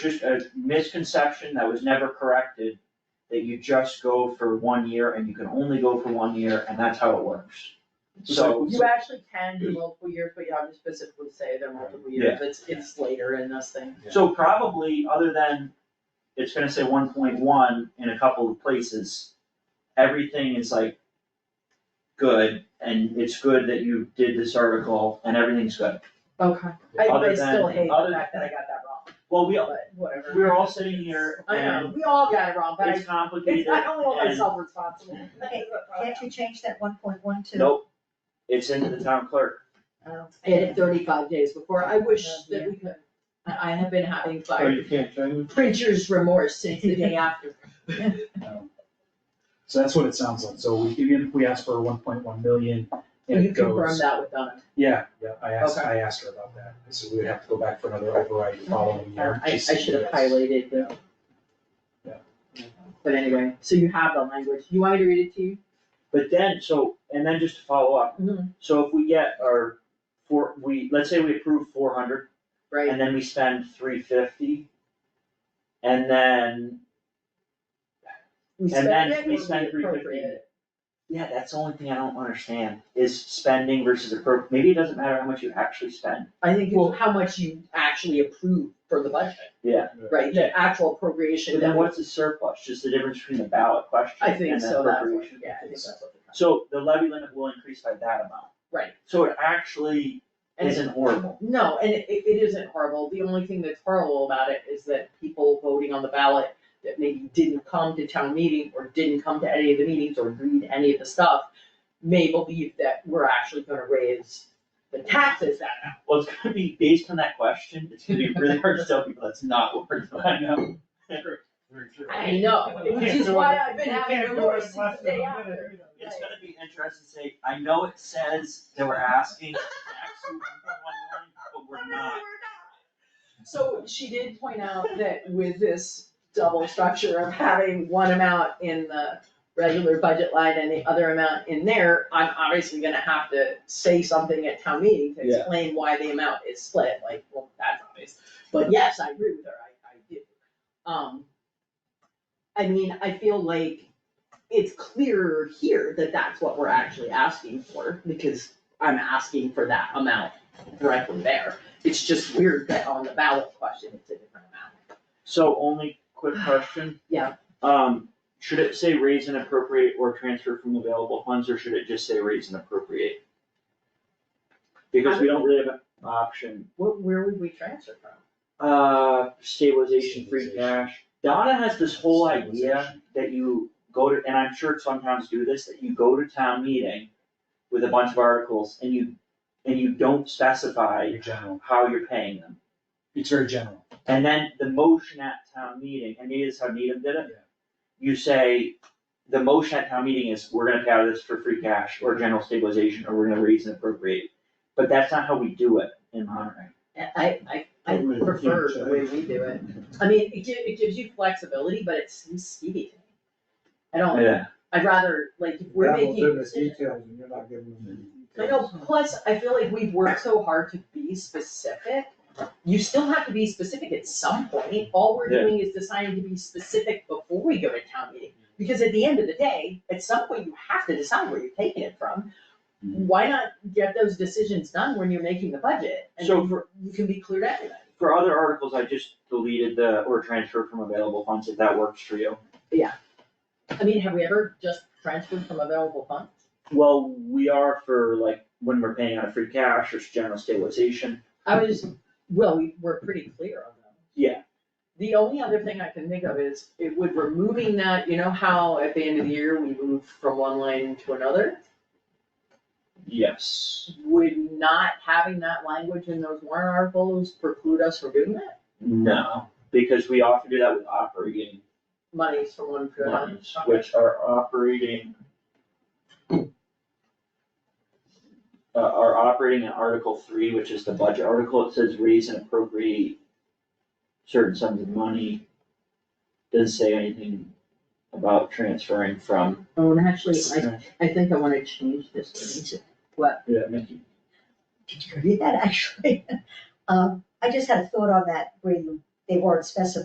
just a misconception that was never corrected, that you just go for one year and you can only go for one year and that's how it works. So, You actually can do multiple years, but you have to specifically say they're multiple years, it's, it's later in this thing. so probably, other than, it's gonna say one point one in a couple of places, everything is like good, and it's good that you did this article, and everything's good. Okay. I, I Other still than- hate the other- fact that I got that wrong, Well, we, all- but whatever. we're all sitting here I know, and we all got it wrong, but I, it's complicated it's- I don't hold and myself responsible. Okay, Can't you change that one point one to? Nope, it's into the town clerk. I Get it thirty-five days before, I wish that we could, I, I have been having Oh, like you can't change it? printer's remorse since the day after. So that's what it sounds like, so we give you, we ask for one point one million, and You it confirm goes. that with Donna, Yeah, yeah, I asked, Okay. I asked her about that, so we would have to go back for another override the following year. I, I just to should have do this. highlighted the. Yeah. But anyway, so you have the language, you want me to read it to you? But then, so, and then just to follow up, Mm-hmm. so if we get our four, we, let's say we approve four hundred, Right, and then we spend three fifty. And then, we and spend it, then we we spend three appropriate fifty. it. Yeah, that's the only thing I don't understand, is spending versus appro, maybe it doesn't matter how much you actually spend. I think it's how much you actually approve for the budget. Yeah. Right, the actual appropriation But that then we, what's the surplus, just the difference between the ballot question I and the think so, that's, what- appropriation? yeah, I think that's what the. So the levy limit will increase by that amount. Right. So it actually And it- isn't horrible. No, and it, it isn't horrible, the only thing that's horrible about it is that people voting on the ballot that maybe didn't come to town meeting or didn't come to any of the meetings or read any of the stuff may believe that we're actually gonna raise the taxes that much. Well, it's gonna be based on that question, it's gonna be really hard to tell people that's not what we're doing. I know, which is why I've been having remorse since the day after. It's gonna be interesting to say, I know it says that we're asking for absolute number one line, but we're not. So she did point out that with this double structure of having one amount in the regular budget line and the other amount in there, I'm obviously gonna have to say something at town meeting to Yeah. explain why the amount is split, like, well, that's obvious. But yes, I agree with her, I, I do. Um, I mean, I feel like it's clearer here that that's what we're actually asking for, because I'm asking for that amount directly there. It's just weird that on the ballot question, it's a different amount. So only quick question. Yeah. Um, should it say raise and appropriate or transfer from available funds, or should it just say raise and appropriate? Because Um, we don't really have an option, What, where would we transfer from? uh, stabilization, free cash. Donna has this whole idea that you go to, and I'm sure some towns do this, that you go to town meeting with a bunch of articles and you, and you don't specify Very general, how you're paying them. it's very general, And then the motion at town meeting, and maybe this is how Needham did it. Yeah. You say, the motion at town meeting is, we're gonna pay out of this for free cash or general stabilization, or we're gonna raise and appropriate. But that's not how we do it in Monterey. I, I, I Wait, prefer yeah, the way we do it. I mean, it gi- it gives you flexibility, but it seems skeevy to me. I don't, Yeah. I'd rather, like, if we're Devil's in making a the decision. details and you're not giving them the I know, plus, I feel like we've worked so hard to be specific. You still have to be specific at some point. All we're Yeah. doing is deciding to be specific before we go to town meeting. Because at the end of the day, at some point, you have to decide where you're taking it from. Mm-hmm. Why not get those decisions done when you're making the budget? And So then you can be clear to everybody. For other articles, I just deleted the, or transfer from available funds, if that works for you. I mean, have we ever just transferred from available funds? Well, we are for like, when we're paying out of free cash or general stabilization. I was, well, we were pretty clear on them. Yeah. The only other thing I can think of is it would removing that, you know how at the end of the year we move from one line to another? Yes. Would not having that language in those warrant articles preclude us from doing that? No, because we often do that with operating Monies from one to another? ones, which are operating. Uh, are operating in Article three, which is the budget article, it says raise and appropriate certain sums of money. Doesn't say anything about transferring from. Oh, and actually, I, I think I wanna change this one to, what, Yeah, Mickey. Did you read that actually? Um, I just had a thought on that where you, they weren't specified